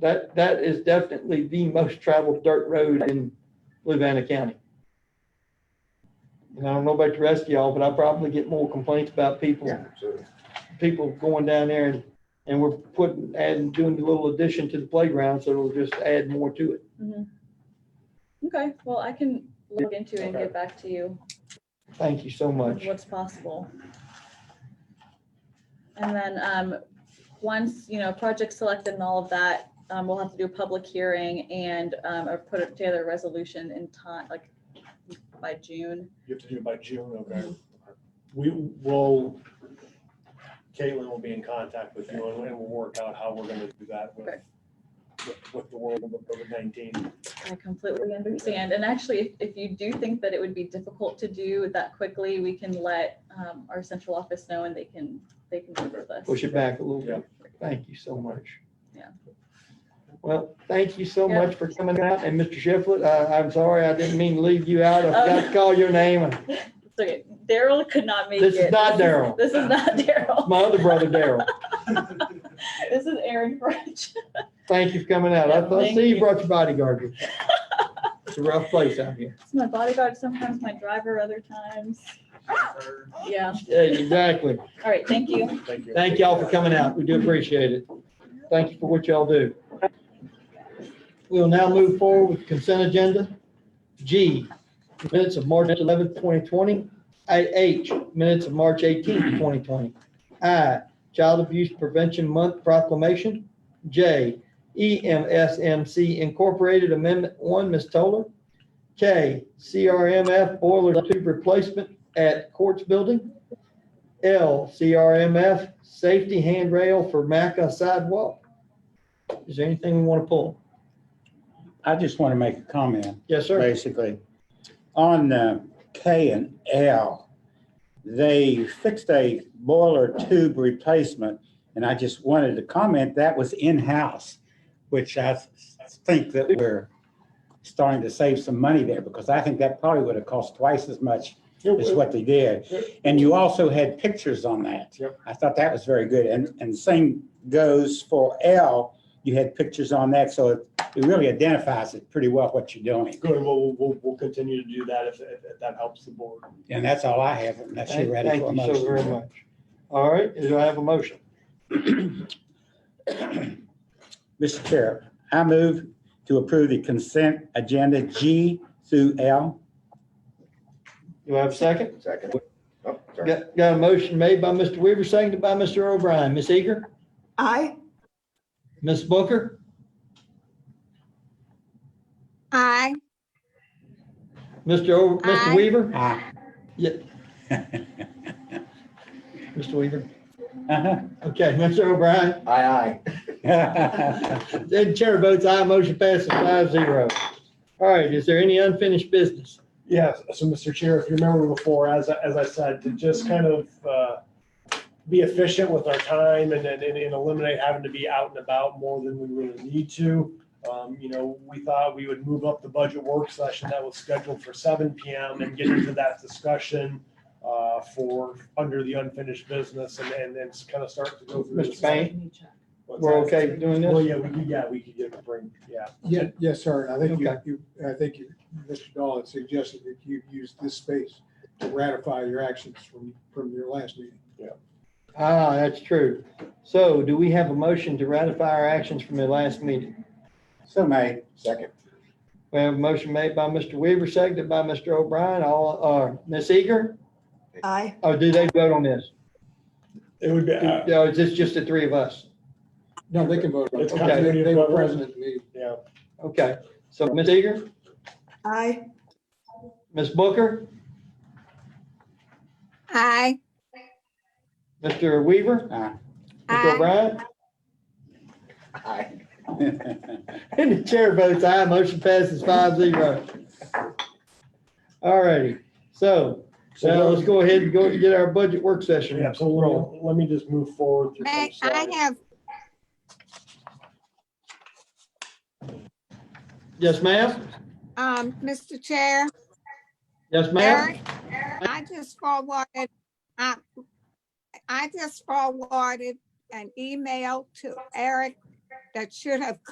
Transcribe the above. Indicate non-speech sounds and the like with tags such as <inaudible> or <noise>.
That, that is definitely the most traveled dirt road in Louisiana County. And I don't know about the rest of y'all, but I probably get more complaints about people, people going down there and, and we're putting, adding, doing a little addition to the playground, so it'll just add more to it. Mm-hmm. Okay, well, I can look into it and Okay. get back to you Thank you so with much. what's possible. And then, um, once, you know, project selected and all of that, um, we'll have to do a public hearing and, um, or put together a resolution in time, like by June. You have to do it by June, okay? We will, Caitlin will be in contact with you and we'll work out how we're gonna do that with, Okay. with- with the world of COVID nineteen. I completely understand. And actually, if, if you do think that it would be difficult to do that quickly, we can let, um, our central office know and they can, they can work with us. Push it back a little Yeah. bit. Thank you so much. Yeah. Well, thank you so Yeah. much for coming out. And Mr. Shiflett, uh, I'm sorry, I didn't mean to leave you out. I Oh, forgot to call your name. It's okay. Daryl could not make it. This is not Daryl. <laughs> This is not Daryl. <laughs> My other brother, Daryl. This is Aaron French. <laughs> Thank you for coming out. I I Thank see you you. brought your bodyguard. with you. It's a rough place out here. It's my bodyguard sometimes, my driver other times. Yeah. <laughs> Yeah, exactly. All right. Thank you. Thank you. Thank y'all for coming out. We do appreciate it. Thank you for what y'all do. We'll now move forward with consent agenda. G, minutes of March 11th, 2020. IH, minutes of March 18th, 2020. I, Child Abuse Prevention Month proclamation. J, E EMSMC Incorporated Amendment 1, Ms. Toller. K, CRMF Boiler Tube Replacement at Courts Building. L, CRMF, safety handrail for Maca sidewalk. Is there anything we want to pull? I just want to make a comment, Yes, sir. basically. On uh, K and L, they fixed a boiler tube replacement, and I just wanted to comment, that was in-house, which I s- think that we're starting to save some money there, because I think that probably would have cost twice as much as what they did. And you also had pictures on that. Yep. I thought that was very good. And, and same goes for L. You had pictures on that, so it it really identifies it pretty well what you're doing. Good, we'll, we'll, we'll continue to do that if, if if that helps the board. And that's all I have, unless you're Thank ready for a thank you so very motion. much. All right, do I have a motion? Mr. Chair, I move to approve the consent agenda G through L. Do I have a second? Second. Oh, sorry. Got, got a motion made by Mr. Weaver, seconded by Mr. O'Brien. Ms. Eager? Aye. Ms. Booker? Aye. Mr. O, Mr. Aye. Weaver? Aye. Yeah. Mr. Weaver? Uh-huh. Okay, Mr. O'Brien? Aye, aye. Then chair votes aye, motion passes five zero. All right, is there any unfinished business? Yes, so Mr. Chair, if you remember before, as, I- as I said, to just kind of uh, be efficient with our time and, and and eliminate having to be out and about more than we really need to. Um, You know, we thought we would move up the budget work session that was scheduled for seven PM and get into that discussion uh, for, under the unfinished business and, and then kind of start to go through. Mr. this- Payne? what's We're that? okay doing Well, this? yeah, we could, yeah, we could get a bring, yeah. Yeah, yes, sir. And I think Okay. you, you, I think you, Mr. Dahl had suggested that you use this space to ratify your actions from, from your last meeting. Ah, that's true. So do we have a motion to ratify our actions from the last meeting? <laughs> So may, Second. We have a motion made by Mr. Weaver, seconded by Mr. O'Brien, all, uh, Ms. Eager? Aye. Or do they vote on this? It would be. uh, Do- Or is this just the three of us? No, they can vote. on it. It's Okay. They they were present at the meeting. Yeah. Okay, so Ms. Eager, Aye. Ms. Booker, Aye. Mr. Weaver, <laughs> Mr. Aye. O'Brien, Aye. aye. and the chair votes aye, motion passes five zero. All righty, so So now let's go ahead and go get our budget work session. Yeah, so let- let me just move forward. through some May I slides. have, Yes, ma'am? um, Mr. Chair? Yes, ma'am? Eric, I just forwarded, um, I, I just forwarded an email to Eric that should have